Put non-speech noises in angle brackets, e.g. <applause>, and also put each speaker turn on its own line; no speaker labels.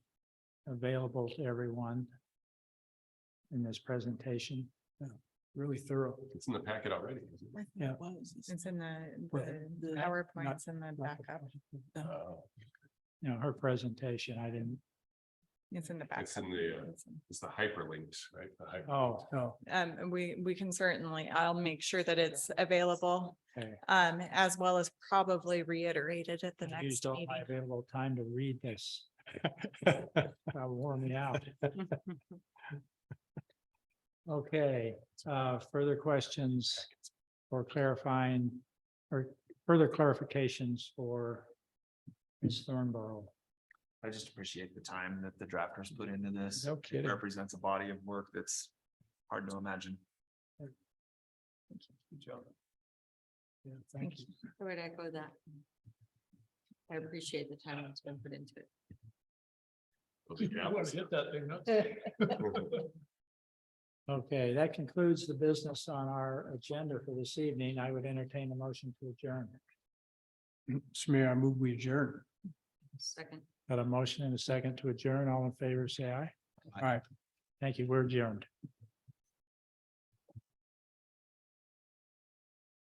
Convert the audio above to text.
available to everyone in this presentation. Really thorough.
It's in the packet already. isn't it?
Yeah.
It's in the,
Well,
the
the-
PowerPoints and the backup.
Uh,
You know, her presentation, I didn't,
It's in the backup.
It's in the, uh,
It's in-
It's the hyperlinks, right? The hy-
oh, <laughs> oh,
Um, and we, we can certainly, I'll make sure that it's available,
okay.
um, as well as probably reiterated at the
I
next
Used all
meeting.
my available time to read this.
<laughs>
That wore me out. Okay, uh, further questions or clarifying or further clarifications for Ms. Thornborough?
I just appreciate the time that the drafters put into this.
No
It
kidding.
Represents a body of work that's hard to imagine.
Yeah,
thank you.
I would echo that. I appreciate the time that's been put into it.
Yeah.
Okay, that concludes the business on our agenda for this evening. I would entertain a motion to adjourn. Smear, I move we adjourn.
Second.
Got a motion and a second to adjourn. All in favor, say aye. Aye. Thank you. We're adjourned.